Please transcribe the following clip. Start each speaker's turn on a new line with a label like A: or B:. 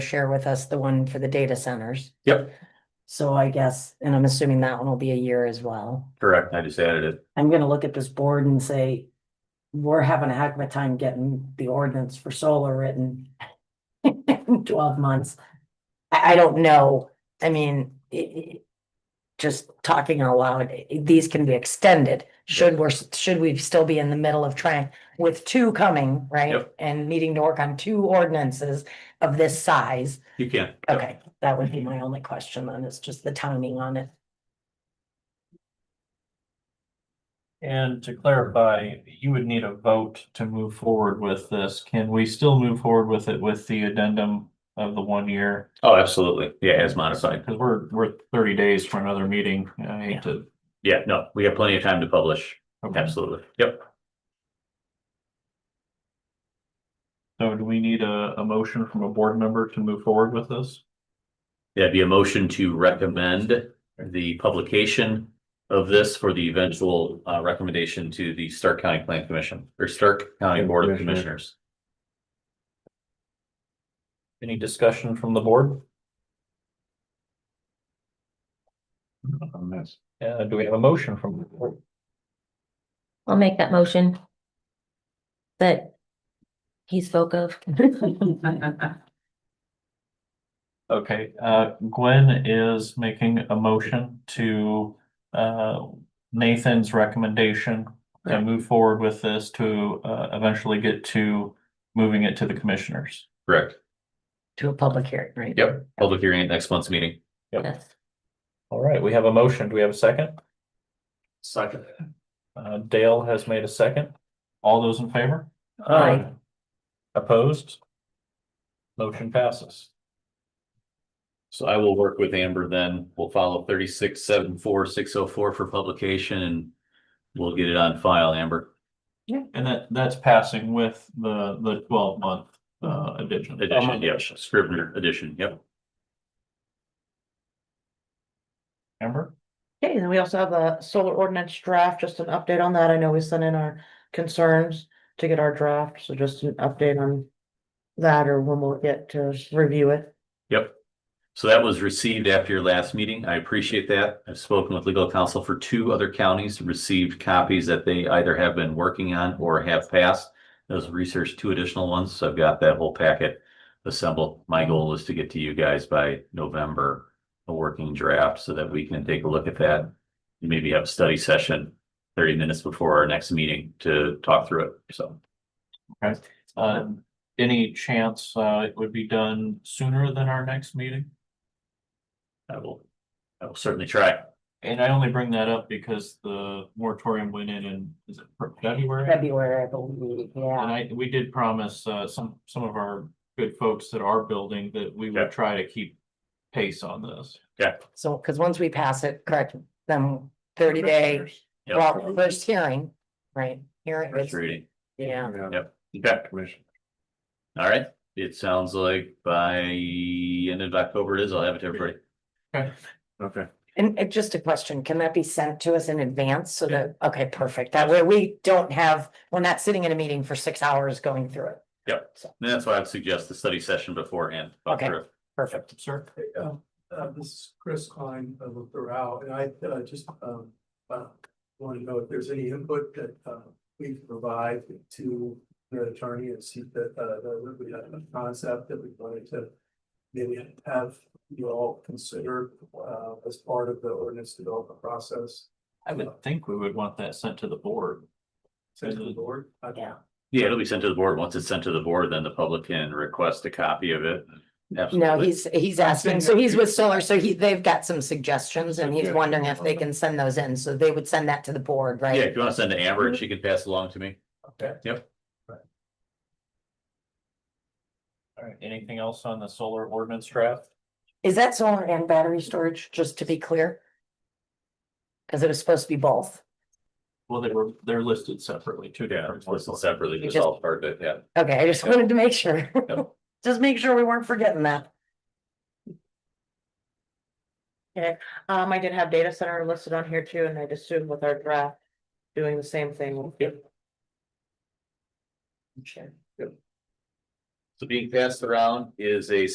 A: share with us the one for the data centers.
B: Yep.
A: So I guess, and I'm assuming that one will be a year as well.
B: Correct, I just added it.
A: I'm gonna look at this board and say, we're having a heck of a time getting the ordinance for solar written in twelve months. I, I don't know. I mean, i- i- just talking out loud, i- these can be extended. Should we're, should we still be in the middle of trying with two coming, right?
B: Yep.
A: And needing to work on two ordinances of this size.
B: You can.
A: Okay, that would be my only question then, it's just the timing on it.
C: And to clarify, you would need a vote to move forward with this. Can we still move forward with it with the addendum of the one year?
B: Oh, absolutely. Yeah, as modified.
C: Because we're, we're thirty days for another meeting. I hate to.
B: Yeah, no, we have plenty of time to publish. Absolutely. Yep.
C: So do we need a, a motion from a board member to move forward with this?
B: That'd be a motion to recommend the publication of this for the eventual uh recommendation to the Stark County Plan Commission or Stark County Board of Commissioners.
C: Any discussion from the board? Uh, do we have a motion from? the board?
D: I'll make that motion. That he spoke of.
C: Okay, uh, Gwen is making a motion to, uh, Nathan's recommendation. To move forward with this to, uh, eventually get to moving it to the commissioners.
B: Correct.
A: To a public hearing, right?
B: Yep. Public hearing at next month's meeting.
D: Yes.
C: All right, we have a motion. Do we have a second?
B: Second.
C: Uh, Dale has made a second. All those in favor?
A: Aye.
C: Opposed? Motion passes.
B: So I will work with Amber then. We'll follow thirty-six, seven, four, six, oh, four for publication and we'll get it on file, Amber.
C: Yeah. And that, that's passing with the, the twelve month, uh, addition.
B: Edition, yes, Scrivener edition, yep.
C: Amber?
E: Okay, then we also have a solar ordinance draft, just an update on that. I know we sent in our concerns to get our draft, so just an update on that or when we'll get to review it.
B: Yep. So that was received after your last meeting. I appreciate that. I've spoken with legal counsel for two other counties, received copies that they either have been working on or have passed. Those researched two additional ones, so I've got that whole packet assembled. My goal is to get to you guys by November. A working draft so that we can take a look at that. Maybe have a study session thirty minutes before our next meeting to talk through it, so. Uh-huh.
C: Uh, any chance, uh, it would be done sooner than our next meeting?
B: I will, I will certainly try.
C: And I only bring that up because the moratorium went in in, is it February?
A: February, I believe, yeah.
C: And I, we did promise, uh, some, some of our good folks that are building that we
B: Yeah.
C: would try to keep pace on this.
A: So, because once we pass it, correct, then thirty day,
B: Yep.
A: well, first hearing, right? Hearing,
B: First
A: is-
B: reading.
A: yeah,
B: Okay. All right, it sounds like by end of October it is, I'll have it to everybody.
A: and it just a question, can that be sent to us in advance so that, okay, perfect, that way we don't have, we're not sitting in a meeting for six hours going through it.
B: Yep.
A: So,
B: And that's why I'd suggest the study session beforehand.
A: Okay. perfect.
C: Sir?
F: Uh, uh, this is Chris Klein of Thorow, and I, uh, just, um, uh, want to know if there's any input that, uh, we can provide to the attorney and see that, uh, that we have a concept that we wanted to maybe have you all consider, uh, as part of the ordinance development process.
C: I would think we would want that sent to the board.
F: Send to the board. I-
A: Yeah.
B: Yeah, it'll be sent to the board. Once it's sent to the board, then the public can request a copy of it.
A: No,
B: Absolutely.
A: he's, he's asking, so he's with solar, so he, they've got some suggestions and he's
F: Okay.
A: wondering if they can send those in, so they would send that to the board,
B: Yeah,
A: right? Mm-hmm.
B: if you want to send to Amber and she can pass it along to me.
F: Okay.
B: Yep.
C: All right, anything else on the solar ordinance draft?
A: Is that solar and battery storage, just to be clear? Cause it was supposed to be both.
C: Well, they were, they're listed separately, two
B: Yeah,
C: different.
B: it's listed separately,
A: You
B: just
A: just-
B: all part of it, yeah.
A: Okay, I just wanted to make sure.
B: Yep.
A: Just make sure we weren't forgetting that.
E: Um, I did have data center listed on here too, and I'd assume with our draft, doing the same thing.
B: So being passed around is a